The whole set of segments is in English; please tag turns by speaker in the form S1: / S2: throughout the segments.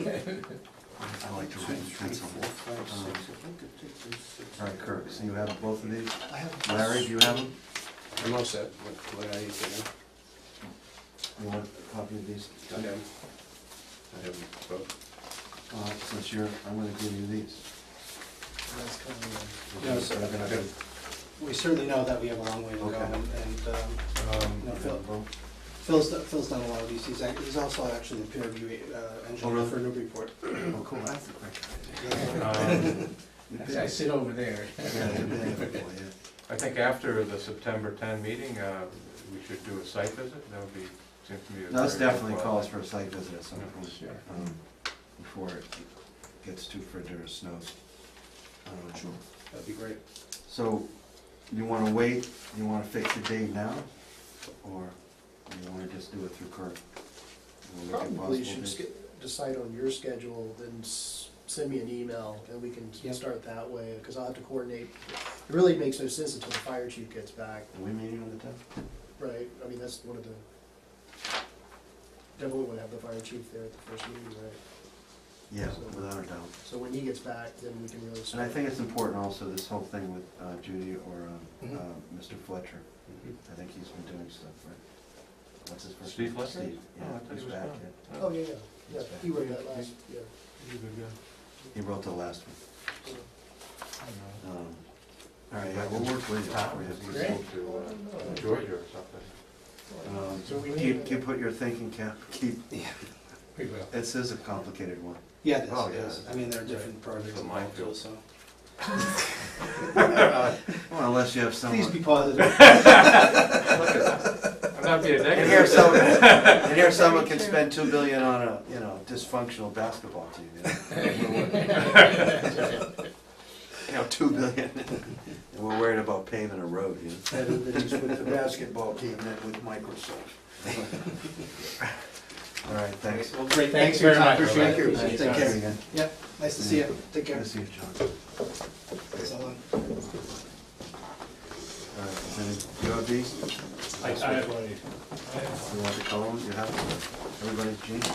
S1: I like to write in pencil. Um, All right, Kirk, so you have both of these?
S2: I have-
S1: Larry, do you have them?
S3: I'm all set, what, what I need to know.
S1: You want a copy of these?
S3: I have, I have both.
S1: Uh, since you're, I'm gonna give you these.
S2: That's kind of,
S1: Okay,
S3: sir.
S1: you're gonna do-
S2: uh, We certainly know that we have a long way to go,
S1: Okay.
S2: and and, um,
S3: Um,
S2: No,
S1: you're
S2: Phil.
S1: gonna vote?
S2: Phil's, do- Phil's done a lot of these, he's, act- he's also actually the peer review uh, engineer
S1: Oh, really?
S2: for Newburyport.
S1: Oh, cool, that's the
S4: Um,
S5: I
S1: question.
S5: sit over there.
S1: Yeah, you're big, boy, yeah.
S4: I think after the September 10 meeting, uh, we should do a site visit, that would be, seems to be a...
S1: No, This
S4: very
S1: definitely
S4: good
S1: calls
S4: call.
S1: for a site visit at some
S4: Yeah,
S1: point.
S5: sure.
S1: um, Before it gets too frigid or snows. Um,
S2: That'd be great.
S1: So, you wanna wait, you wanna fix the date now, or you wanna just do it through Kirk? We'll look at
S6: Probably you
S1: possible
S6: should
S1: dates.
S6: sch- decide on your schedule, then s- send me an email, and we can
S2: Yeah.
S6: start that way, because I'll have to coordinate. It really makes no sense until the fire chief gets back,
S1: Are we meeting on the tenth?
S6: right? I mean, that's one of the, definitely want to have the fire chief there at the first meeting, right?
S1: Yeah,
S6: So-
S1: without a doubt.
S6: So when he gets back, then we can really
S1: And
S6: start.
S1: I think it's important also, this whole thing with uh, Judy or um,
S6: Mm-hmm.
S2: Mhm.
S1: uh, Mr. Fletcher.
S3: Mhm.
S1: I think he's been doing stuff, right? What's his first
S4: Steve
S1: name?
S4: Fletcher?
S1: Steve,
S4: Oh, I
S1: yeah,
S4: thought he
S1: he's
S4: was
S1: back,
S4: gone.
S1: yeah.
S6: Oh, yeah, yeah, yeah,
S1: He's back.
S6: he wrote that last, yeah.
S4: He's a good guy.
S1: He wrote the last one.
S4: I don't know.
S1: Um, All right, yeah, we'll work with you.
S4: Tom,
S1: Yeah.
S4: he spoke to uh, Georgia or something.
S1: Um,
S6: So we need
S1: Keep,
S6: to-
S1: keep what you're thinking, Cap, keep,
S5: We will.
S1: this is a complicated one.
S2: Yeah, it is,
S4: Oh,
S2: it
S4: yeah.
S2: is. I mean, there are different projects
S4: It's a
S2: involved, too,
S4: minefield.
S2: so.
S1: Well, unless you have
S2: Please
S1: someone,
S2: be positive.
S4: I'm not being
S1: and here
S4: negative.
S1: someone, and here someone can spend two billion on a, you know, dysfunctional basketball team, you know? You know, two billion, and we're worried about paving a road, you know?
S3: Better than he's with the basketball team than with Microsoft.
S1: All right, thanks.
S4: Well,
S2: Great,
S5: Thanks
S2: thanks for your
S5: very
S2: time.
S5: much.
S2: Appreciate it.
S5: Thank you.
S2: Take
S1: Thanks
S2: care.
S1: again.
S2: Yep, nice to see you. Take
S1: Good
S2: care.
S1: to see you, John.
S2: So long.
S1: All right, is any- you have these?
S5: I have one.
S1: You want the columns, you have them? Everybody's Jean?
S7: No,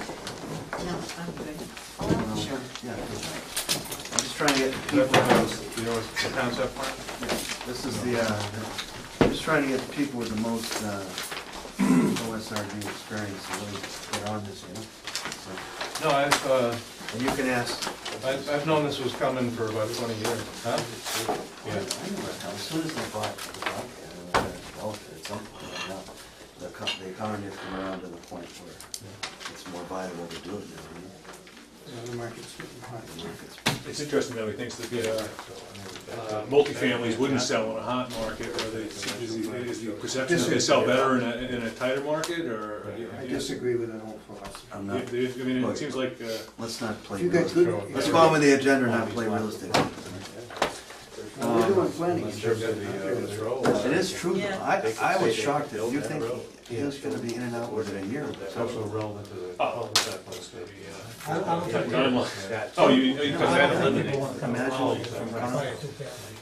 S7: I'm good. Oh, sure.
S1: Yeah. good. I'm just trying to get
S4: You know
S1: people,
S4: what's- you know what's the concept plan?
S1: this is the, uh, I'm just trying to get the people with the most uh, OSRD experience, to really get on this, you know? So,
S4: No, I've, uh,
S1: And you can ask,
S4: I've I've known this was coming for about 20 years.
S1: I
S4: Huh? Yeah.
S1: don't know, as soon as they bought the Bobcat, uh, Delta, at some point, now, the co- the economy has come around to the point where it's more viable to do it now, you know?
S2: Yeah, The market's getting hot.
S1: The market's
S8: It's interesting though, he thinks that the, uh, uh, multifamilies wouldn't sell in a hot market, or they, is the, is the perception that they sell better in a, in a tighter market, or?
S3: I
S2: disagree with that whole philosophy.
S1: I'm
S8: They-
S1: not,
S8: they- I mean, it seems like, uh,
S1: let's not play
S3: You
S1: real
S3: got
S1: estate.
S3: good.
S1: Let's go on with the agenda and not play real estate. Um,
S3: We're doing planning.
S4: In terms of the, uh, this role, uh,
S1: It is true, though. I, I was shocked that you
S3: that
S1: think
S3: road.
S1: he was gonna be in and out within a year.
S4: It's also relevant to the...
S8: Oh.
S5: I don't think
S4: Yeah.
S8: oh, you, oh, you
S1: No,
S8: because
S1: I
S8: that
S1: don't think
S8: eliminates.
S1: people Imagine from Connell.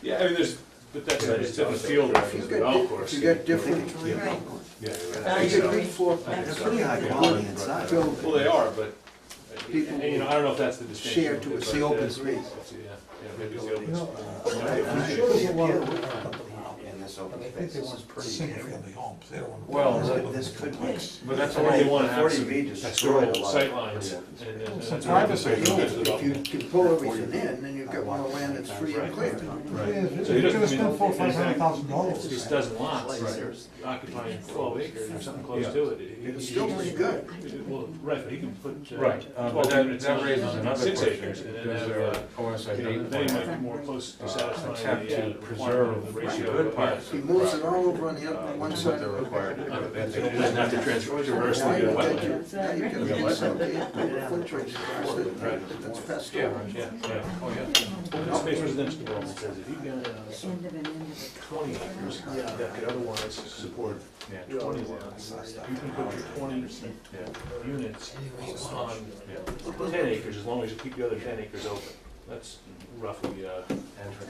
S8: Yeah, I mean, there's, but that's a it's a different field than the golf course.
S3: You got
S1: You think
S3: different,
S1: it's really
S7: Right.
S1: Connell.
S4: Yeah, you're right.
S3: you got good floor
S1: They're
S3: plans.
S1: pretty high quality inside.
S3: Phil,
S8: Well, they are, but,
S3: People
S8: and, you know, I don't know if that's the distinction.
S3: share to it.
S1: It's the open
S8: but, uh,
S1: space.
S8: Yeah, yeah, maybe it's the open space.
S1: And I- In this open space, this is pretty.
S5: Single-family homes, they don't want.
S4: Well,
S1: This- This could work.
S8: But that's
S1: Forty-
S8: why they wanna have
S1: 40B
S8: some
S1: destroyed a
S8: historical
S1: lot of
S8: sightlines.
S1: pretty
S8: and- uh, and- and
S5: Some
S8: that's-
S5: privacy.
S8: that's
S3: No,
S8: good
S3: If you
S8: development.
S3: can pull everything in, then you've got more land that's free and clear.
S5: Yeah,
S8: Right.
S5: it's
S8: So you don't-
S5: gonna
S8: I mean,
S5: spend four, five hundred thousand
S8: These
S5: dollars.
S8: dozen lots, is occupying twelve acres or something close to it. He-
S3: It's
S8: he-
S3: still pretty good.
S8: Well, right, but he can put. uh,
S4: Right, uh, but
S8: 12
S4: that
S8: units
S4: that
S8: on
S4: raises another
S8: Six
S4: question,
S8: acres, and then
S4: because
S8: have,
S4: there are
S8: uh, you know,
S4: OSRD
S8: Then he might
S4: plans.
S8: be more close
S4: Uh,
S8: to satisfying
S4: attempt
S8: the uh,
S4: to
S8: requirement
S4: preserve
S8: of the
S4: the
S8: ratio.
S4: good
S8: but,
S4: parts.
S8: yeah.
S3: He moves it all over on the
S4: Uh,
S3: other,
S4: What
S3: one
S4: they're
S3: side.
S4: required to do. They have to-
S8: It doesn't have to transfer to the rest
S3: Now
S8: of the
S3: you've got
S8: wetland.
S3: your, now you've got your insect, you've got foot trees across it, that's
S8: Yeah,
S3: pestle.
S8: yeah, yeah, oh, yeah. Open space residential development says if you've got uh,
S7: End of an end of a.
S8: twenty acres
S6: Yeah.
S8: that could otherwise support
S4: Yeah.
S8: twenty lots, you can put your twenty
S4: Yeah.
S8: units on ten acres, as long as you keep the other ten acres open. That's roughly, uh,
S3: And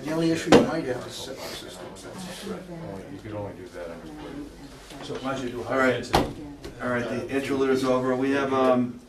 S3: the only issue you might have is septic systems, that's.
S4: Only-
S7: uh,
S4: You could only do that under
S8: so as long as you do
S1: All right.
S8: high density.
S1: All right, the interlude is over. We have, um,